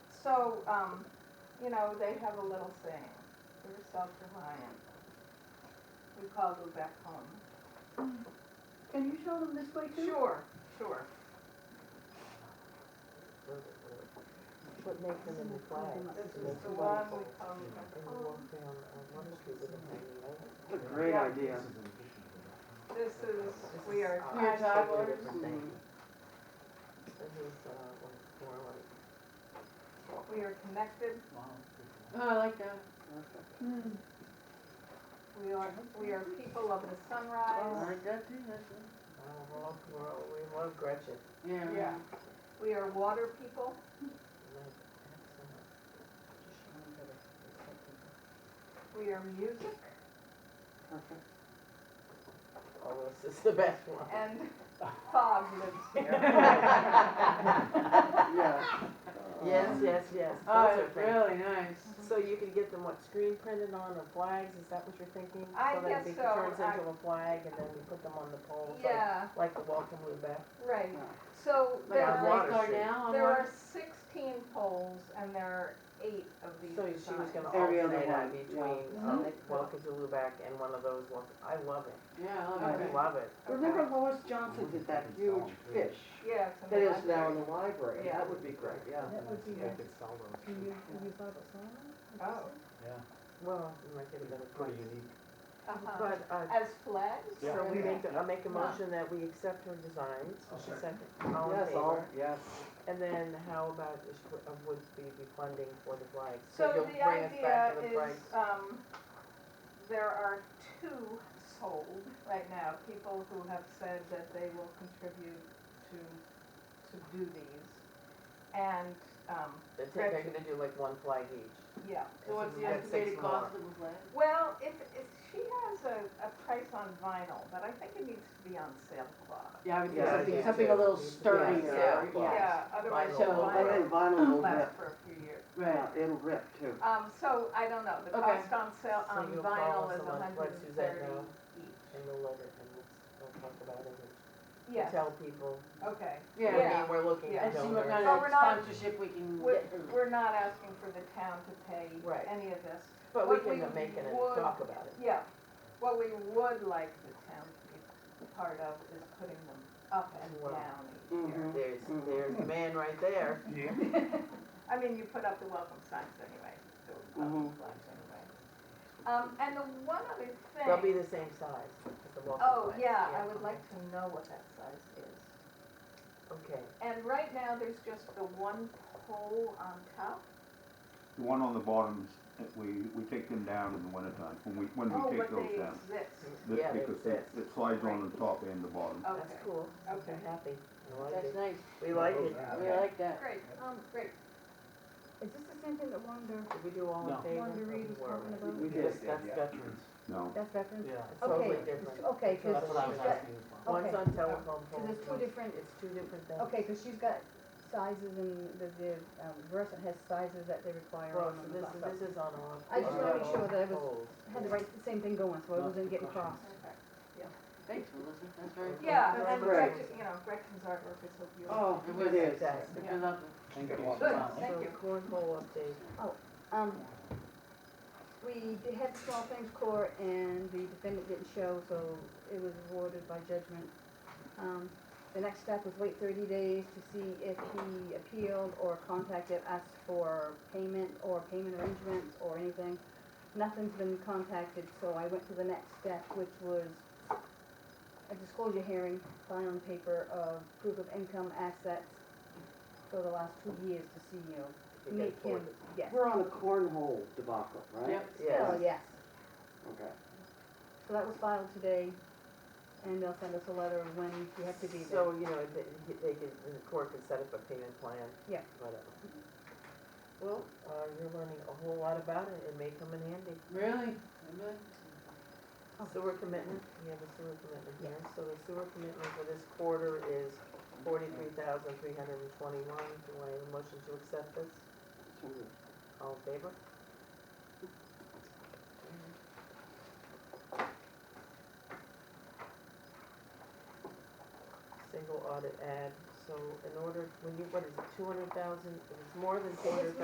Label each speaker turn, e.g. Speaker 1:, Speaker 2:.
Speaker 1: so, um, you know, they have a little saying, we're self-reliant. We call Lubec home.
Speaker 2: Can you show them this way
Speaker 3: Mm-hmm.
Speaker 2: too?
Speaker 1: Sure, sure.
Speaker 4: What makes them in the flag?
Speaker 1: This
Speaker 4: And
Speaker 1: is
Speaker 4: that's
Speaker 1: the
Speaker 4: why
Speaker 1: one we call
Speaker 4: And
Speaker 1: Lubec
Speaker 4: you
Speaker 1: home.
Speaker 4: walk down uh, Water Street with a hanging over.
Speaker 5: What a great
Speaker 1: Yeah.
Speaker 5: idea.
Speaker 1: This is, we are
Speaker 4: We
Speaker 1: time
Speaker 4: are
Speaker 1: travelers.
Speaker 4: travelers. This is, uh, one, more like,
Speaker 1: We are connected.
Speaker 6: Oh, I like that.
Speaker 1: We are, we are people of the
Speaker 6: I
Speaker 1: sunrise.
Speaker 6: like that too, that's it.
Speaker 4: oh, we love, we love- we love Gretchen.
Speaker 6: Yeah,
Speaker 1: Yeah.
Speaker 6: yeah.
Speaker 1: We are water people.
Speaker 4: We love excellent.
Speaker 1: We are music.
Speaker 6: Perfect.
Speaker 4: Oh, this is the best one.
Speaker 1: And fog lives here.
Speaker 5: Yeah.
Speaker 4: Yes, yes, yes, those
Speaker 6: Oh,
Speaker 4: are
Speaker 6: it's
Speaker 4: things.
Speaker 6: really nice.
Speaker 4: So you can get them, what, screen printed on the flags, is that what you're thinking?
Speaker 1: I guess
Speaker 4: So
Speaker 1: so,
Speaker 4: that it turns
Speaker 1: I-
Speaker 4: into a flag and then we put them on the poles, like,
Speaker 1: Yeah,
Speaker 4: like the welcome Lubec.
Speaker 1: right. So
Speaker 6: Like
Speaker 1: there
Speaker 4: on
Speaker 6: our
Speaker 1: are,
Speaker 4: Water
Speaker 6: lifeguard
Speaker 4: Street.
Speaker 6: now, I'm
Speaker 1: there
Speaker 6: on,
Speaker 1: are sixteen poles and there are eight of these
Speaker 4: So she was gonna
Speaker 5: Every other
Speaker 4: alternate on
Speaker 5: one, yeah.
Speaker 4: between, um, Welcome to Lubec and one of those ones, I love it,
Speaker 6: yeah, I
Speaker 4: I
Speaker 6: love it.
Speaker 4: love it.
Speaker 5: Remember Lois Johnson did that huge fish
Speaker 1: Yes.
Speaker 5: that is now in the library? That would be great, yeah.
Speaker 3: That would be
Speaker 7: Yeah,
Speaker 3: good.
Speaker 7: I could sell those.
Speaker 3: Can you, can you buy the salmon?
Speaker 1: Oh,
Speaker 7: Yeah,
Speaker 4: Well, it might get a better
Speaker 7: it's
Speaker 4: price.
Speaker 7: pretty unique.
Speaker 1: uh-huh.
Speaker 4: But, uh,
Speaker 1: As flags?
Speaker 7: Yeah.
Speaker 4: so we
Speaker 1: Okay.
Speaker 4: make, I make a motion that we accept her designs,
Speaker 7: I'll
Speaker 4: second,
Speaker 7: second.
Speaker 4: all in
Speaker 5: Yes, all,
Speaker 4: favor.
Speaker 5: yes.
Speaker 4: And then how about, is- uh, would we be funding for the flags?
Speaker 1: So
Speaker 4: you'll
Speaker 1: the
Speaker 4: bring us
Speaker 1: idea
Speaker 4: back to the
Speaker 1: is,
Speaker 4: price.
Speaker 1: um, there are two sold right now, people who have said that they will contribute to, to do these. And, um,
Speaker 4: They're ta- They're gonna do like one flag each.
Speaker 1: yeah,
Speaker 6: So what's the
Speaker 4: That's six
Speaker 6: estimated
Speaker 4: more.
Speaker 6: cost of the flag?
Speaker 1: well, if, if, she has a, a price on vinyl, but I think it needs to be on sailcloth.
Speaker 6: Yeah, I would do
Speaker 5: Yeah,
Speaker 6: something,
Speaker 4: yeah.
Speaker 6: something a little
Speaker 4: Yeah,
Speaker 6: sturdier, yeah.
Speaker 1: Yeah, otherwise
Speaker 4: Vinyl.
Speaker 1: the
Speaker 6: So,
Speaker 5: And then
Speaker 1: vinyl
Speaker 5: vinyl will rip,
Speaker 1: lasts for a few years.
Speaker 6: Right.
Speaker 5: Yeah, it'll rip too.
Speaker 1: Um, so I don't know, the
Speaker 6: Okay.
Speaker 1: cost on sale,
Speaker 4: So
Speaker 1: on
Speaker 4: you'll follow
Speaker 1: vinyl
Speaker 4: us
Speaker 1: is
Speaker 4: on
Speaker 1: a hundred
Speaker 4: what
Speaker 1: and thirty
Speaker 4: Suzette now?
Speaker 1: each.
Speaker 4: And we'll let it, and we'll, we'll talk about it and
Speaker 1: Yes,
Speaker 4: tell people.
Speaker 1: okay.
Speaker 4: I
Speaker 6: Yeah,
Speaker 1: Yeah.
Speaker 4: mean, we're looking
Speaker 1: Yeah.
Speaker 4: at
Speaker 6: and see
Speaker 4: donors.
Speaker 6: what kind
Speaker 1: But
Speaker 6: of
Speaker 1: we're not-
Speaker 6: sponsorship we can
Speaker 1: We're,
Speaker 6: get. her.
Speaker 1: we're not asking for the town to pay
Speaker 4: Right.
Speaker 1: any of this.
Speaker 4: But we
Speaker 1: What we
Speaker 4: can make it and
Speaker 1: would-
Speaker 4: talk about it.
Speaker 1: Yeah, what we would like the town to be part of is putting them up and
Speaker 4: Wow.
Speaker 1: down each year.
Speaker 4: There's,
Speaker 3: Mm-hmm.
Speaker 4: there's a man right there.
Speaker 1: I mean, you put up the welcome signs anyway, the welcome
Speaker 5: Mhm.
Speaker 1: flags anyway. Um, and the one other thing.
Speaker 4: They'll be the same size as the walking
Speaker 1: Oh,
Speaker 4: flag.
Speaker 1: yeah, I would like to know what that size is.
Speaker 4: Okay,
Speaker 1: And right now, there's just the one pole on top.
Speaker 8: The one on the bottoms, that we, we take them down in the wintertime, when we, when
Speaker 1: Oh,
Speaker 8: we
Speaker 1: but
Speaker 8: take
Speaker 1: they
Speaker 8: those down.
Speaker 1: exist.
Speaker 8: The-
Speaker 4: Yeah, they
Speaker 8: Because it-
Speaker 4: exist.
Speaker 8: it slides on
Speaker 1: Right.
Speaker 8: the top and the bottom.
Speaker 1: Okay,
Speaker 4: that's cool.
Speaker 1: okay,
Speaker 4: I'm happy. I like
Speaker 6: That's
Speaker 4: it.
Speaker 6: nice,
Speaker 4: We like it.
Speaker 6: we
Speaker 1: Okay.
Speaker 6: like that.
Speaker 1: great, um, great.
Speaker 3: Is this the same thing that Wanda,
Speaker 4: Did we do all in
Speaker 7: No.
Speaker 4: favor?
Speaker 3: Wanda Reed was
Speaker 4: Or were
Speaker 3: talking about?
Speaker 5: We
Speaker 4: We
Speaker 5: did,
Speaker 4: just, that's
Speaker 7: yeah.
Speaker 4: veterans.
Speaker 8: No,
Speaker 3: That's veterans?
Speaker 7: Yeah.
Speaker 4: It's
Speaker 3: Okay,
Speaker 4: totally
Speaker 3: it's-
Speaker 4: different.
Speaker 3: Okay, cause
Speaker 7: That's what I was
Speaker 3: she's got,
Speaker 7: asking as well.
Speaker 4: One's
Speaker 3: okay.
Speaker 4: on telephone poles.
Speaker 3: there's two
Speaker 4: one's-
Speaker 3: different-
Speaker 4: It's two different things.
Speaker 3: okay, cause she's got sizes and the, the, um, Versant has sizes that they require
Speaker 4: Well,
Speaker 3: on
Speaker 4: Oh, so
Speaker 3: them.
Speaker 4: this,
Speaker 3: and
Speaker 4: is-
Speaker 3: stuff.
Speaker 4: this is on all.
Speaker 3: I just wanna make sure that I was-
Speaker 4: Poles.
Speaker 3: Had the right, the same thing going, so I
Speaker 7: Not
Speaker 3: wasn't getting
Speaker 7: percussion.
Speaker 3: cross.
Speaker 1: Okay.
Speaker 6: Thanks, Melissa, that's very. cool.
Speaker 1: Yeah,
Speaker 4: That's
Speaker 1: and
Speaker 5: great.
Speaker 1: Gretchen, you know, Gretchen's artwork is so beautiful.
Speaker 5: Oh,
Speaker 6: It
Speaker 5: it
Speaker 6: was
Speaker 5: is.
Speaker 4: Fantastic.
Speaker 6: Good luck.
Speaker 7: Thank you.
Speaker 1: Good,
Speaker 7: Wow.
Speaker 1: thank
Speaker 4: So
Speaker 1: you.
Speaker 4: cornhole update.
Speaker 3: Um, we did have the small claims court and the defendant didn't show, so it was awarded by judgment. Um, the next step was wait thirty days to see if he appealed or contacted us for payment or payment arrangements or anything. Nothing's been contacted, so I went to the next step, which was a disclosure hearing, filing paper of proof of income assets for the last two years to see, you know,
Speaker 4: You
Speaker 3: make
Speaker 4: get
Speaker 3: him,
Speaker 4: forward.
Speaker 3: yes.
Speaker 5: We're on the cornhole debacle, right?
Speaker 6: Yep.
Speaker 3: Still,
Speaker 4: Yes.
Speaker 3: yes.
Speaker 5: Okay.
Speaker 3: Oh, So that was filed today, and they'll send us a letter of when you have to be there.
Speaker 4: So, you know, they, they can, the court can set up a payment plan.
Speaker 3: Yeah.
Speaker 4: Whatever. Well, uh, you're learning a whole lot about it, it may come in handy.
Speaker 6: Really? Really?
Speaker 3: Oh.
Speaker 4: Sewer commitment, you have a sewer commitment here, so the sewer commitment for this quarter is forty-three thousand three hundred and twenty-one, do I have a motion to accept this? All in favor? Single audit ad, so in order, when you, what is it, two hundred thousand, if it's more than two hundred thousand.